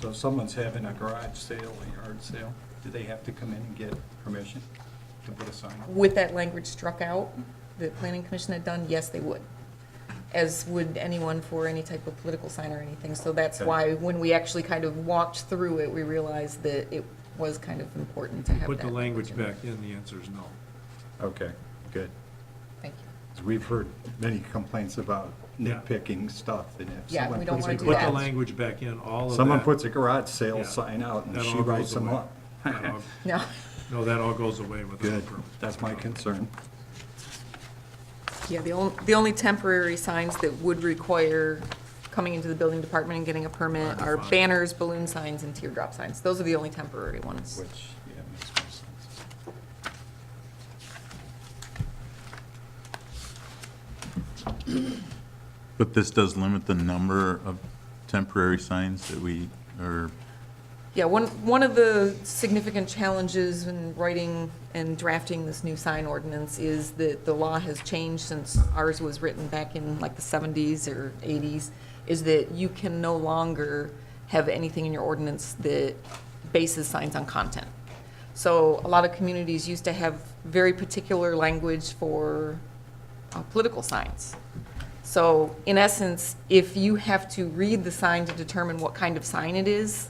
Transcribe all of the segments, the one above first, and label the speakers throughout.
Speaker 1: So if someone's having a garage sale, a yard sale, do they have to come in and get permission to put a sign up?
Speaker 2: With that language struck out, the planning commission had done, yes, they would. As would anyone for any type of political sign or anything. So that's
Speaker 1: Okay.
Speaker 2: why, when we actually kind of walked through it, we realized that it was kind of important to have that.
Speaker 3: Put the language
Speaker 2: in there.
Speaker 3: back in, the answer is no.
Speaker 1: Okay, good.
Speaker 2: Thank you.
Speaker 1: 'Cause we've heard many complaints about
Speaker 3: Yeah.
Speaker 1: nitpicking stuff, and if
Speaker 2: Yeah,
Speaker 1: someone
Speaker 2: we don't
Speaker 1: puts a
Speaker 2: wanna
Speaker 3: If
Speaker 2: do
Speaker 3: you put the
Speaker 2: that.
Speaker 3: language back in, all of that.
Speaker 1: Someone puts a garage sale
Speaker 3: Yeah.
Speaker 1: sign out and
Speaker 3: that
Speaker 1: she
Speaker 3: all
Speaker 1: writes
Speaker 3: goes
Speaker 1: them
Speaker 3: away.
Speaker 1: up.
Speaker 3: That all-
Speaker 2: No,
Speaker 3: No, that all goes away with the
Speaker 1: Good,
Speaker 3: permit.
Speaker 1: that's my concern.
Speaker 2: yeah, the only, the only temporary signs that would require coming into the building department and getting a permit are
Speaker 3: Fine.
Speaker 2: banners, balloon signs, and teardrop signs. Those are the only temporary ones.
Speaker 1: Which, yeah, makes more sense.
Speaker 4: But this does limit the number of temporary signs that we, or,
Speaker 2: Yeah, one, one of the significant challenges in writing and drafting this new sign ordinance is that the law has changed since ours was written back in like the 70s or 80s, is that you can no longer have anything in your ordinance that bases signs on content. So a lot of communities used to have very particular language for uh, political signs. So in essence, if you have to read the sign to determine what kind of sign it is,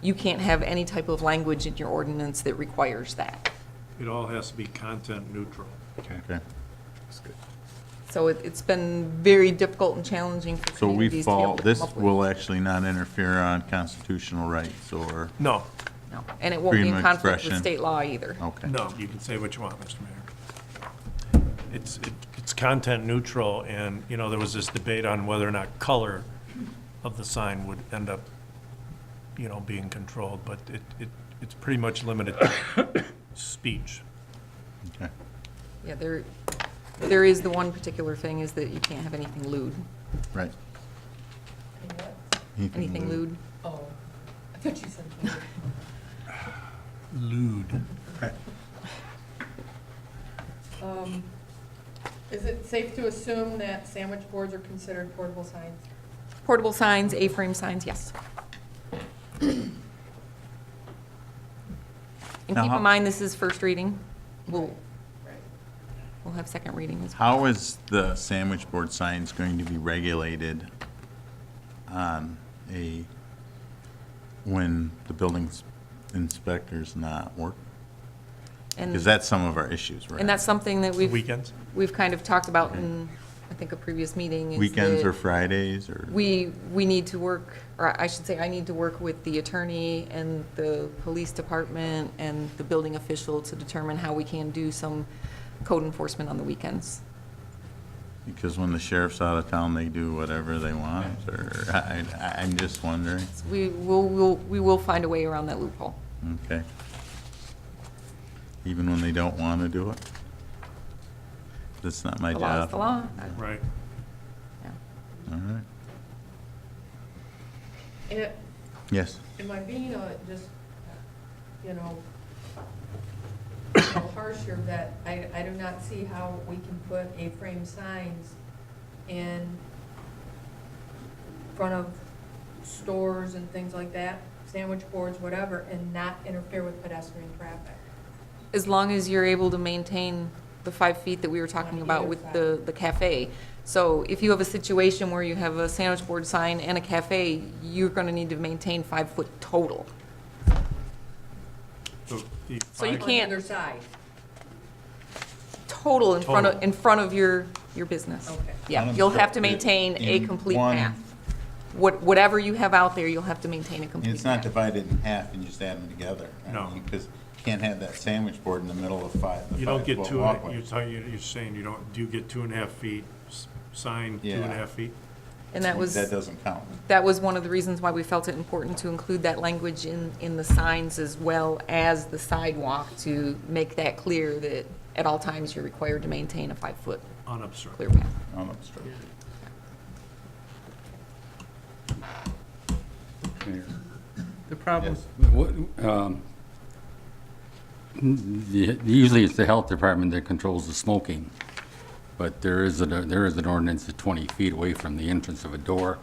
Speaker 2: you can't have any type of language in your ordinance that requires that.
Speaker 3: It all has to be content neutral.
Speaker 1: Okay,
Speaker 4: okay.
Speaker 1: that's good.
Speaker 2: So it, it's been very difficult and challenging for
Speaker 4: So we
Speaker 2: communities to be
Speaker 4: fall,
Speaker 2: able to come
Speaker 4: this
Speaker 2: up with.
Speaker 4: will actually not interfere on constitutional rights or,
Speaker 3: No,
Speaker 2: No, And it won't be in
Speaker 4: freedom of
Speaker 2: conflict with
Speaker 4: expression. Oh.
Speaker 2: state law either.
Speaker 4: okay.
Speaker 3: no, you can say what you want, Mr. Mayor. It's, it- it's content neutral, and, you know, there was this debate on whether or not color of the sign would end up, you know, being controlled, but it, it, it's pretty much limited to speech.
Speaker 4: okay.
Speaker 2: Yeah, there, there is the one particular thing is that you can't have anything lewd.
Speaker 4: Right.
Speaker 2: Anything lewd.
Speaker 5: Oh, I thought you said.
Speaker 3: Lewd.
Speaker 5: Um, Is it safe to assume that sandwich boards are considered portable signs?
Speaker 2: Portable signs, A-frame signs, yes. And
Speaker 4: Now,
Speaker 2: keep
Speaker 4: how-
Speaker 2: in mind, this is first reading. We'll,
Speaker 5: Right.
Speaker 2: we'll have second reading as well.
Speaker 4: How is the sandwich board signs going to be regulated on a, when the building inspector's not work? Because
Speaker 2: And,
Speaker 4: that's some of our issues, right?
Speaker 2: and that's something that we've,
Speaker 3: Weekends?
Speaker 2: we've kind of talked about in, I think, a previous meeting. is
Speaker 4: Weekends
Speaker 2: that
Speaker 4: or Fridays or?
Speaker 2: We, we need to work, or I should say, I need to work with the attorney and the police department and the building official to determine how we can do some code enforcement on the weekends.
Speaker 4: Because when the sheriff's out of town, they do whatever they want, or, I, I- I'm just wondering,
Speaker 2: We will, we'll- we will find a way around that loophole.
Speaker 4: okay? Even when they don't want to do it? That's not my
Speaker 2: The law is
Speaker 4: job.
Speaker 2: the law.
Speaker 3: Right.
Speaker 2: Yeah.
Speaker 4: All right,
Speaker 5: And
Speaker 4: yes,
Speaker 5: am I being a, just, you know, harsh here, that I, I do not see how we can put A-frame signs in front of stores and things like that, sandwich boards, whatever, and not interfere with pedestrian traffic?
Speaker 2: As long as you're able to maintain the five feet that we were talking about with the, the cafe. So if you have a situation where you have a sandwich board sign and a cafe, you're gonna need to maintain five foot total. So you
Speaker 5: On
Speaker 2: can't-
Speaker 5: either side,
Speaker 2: Total in front of,
Speaker 3: Total.
Speaker 2: in front of your, your business.
Speaker 5: Okay.
Speaker 2: Yeah, you'll have to maintain a
Speaker 4: In
Speaker 2: complete
Speaker 4: one-
Speaker 2: path. What, whatever you have out there, you'll have to maintain a
Speaker 4: And
Speaker 2: complete
Speaker 4: it's not
Speaker 2: path.
Speaker 4: divided in half and just add them together. I
Speaker 3: No.
Speaker 4: mean, Because you can't have that sandwich board in the middle of five, the
Speaker 3: You don't get
Speaker 4: five-foot
Speaker 3: two, and a- you're
Speaker 4: walkway.
Speaker 3: talking, you're you're saying you don't, do you get two and a half feet, s- sign two and a
Speaker 4: Yeah.
Speaker 3: half feet?
Speaker 2: And that was.
Speaker 4: That doesn't count.
Speaker 2: that was one of the reasons why we felt it important to include that language in, in the signs as well as the sidewalk to make that clear that at all times you're required to maintain a five-foot
Speaker 3: Unobstructed.
Speaker 2: clear path.
Speaker 4: unobstructed.
Speaker 6: The problem,
Speaker 4: Yes.
Speaker 6: what, um, the- usually it's the health department that controls the smoking, but there is, a- there is an ordinance at 20 feet away from the entrance of a door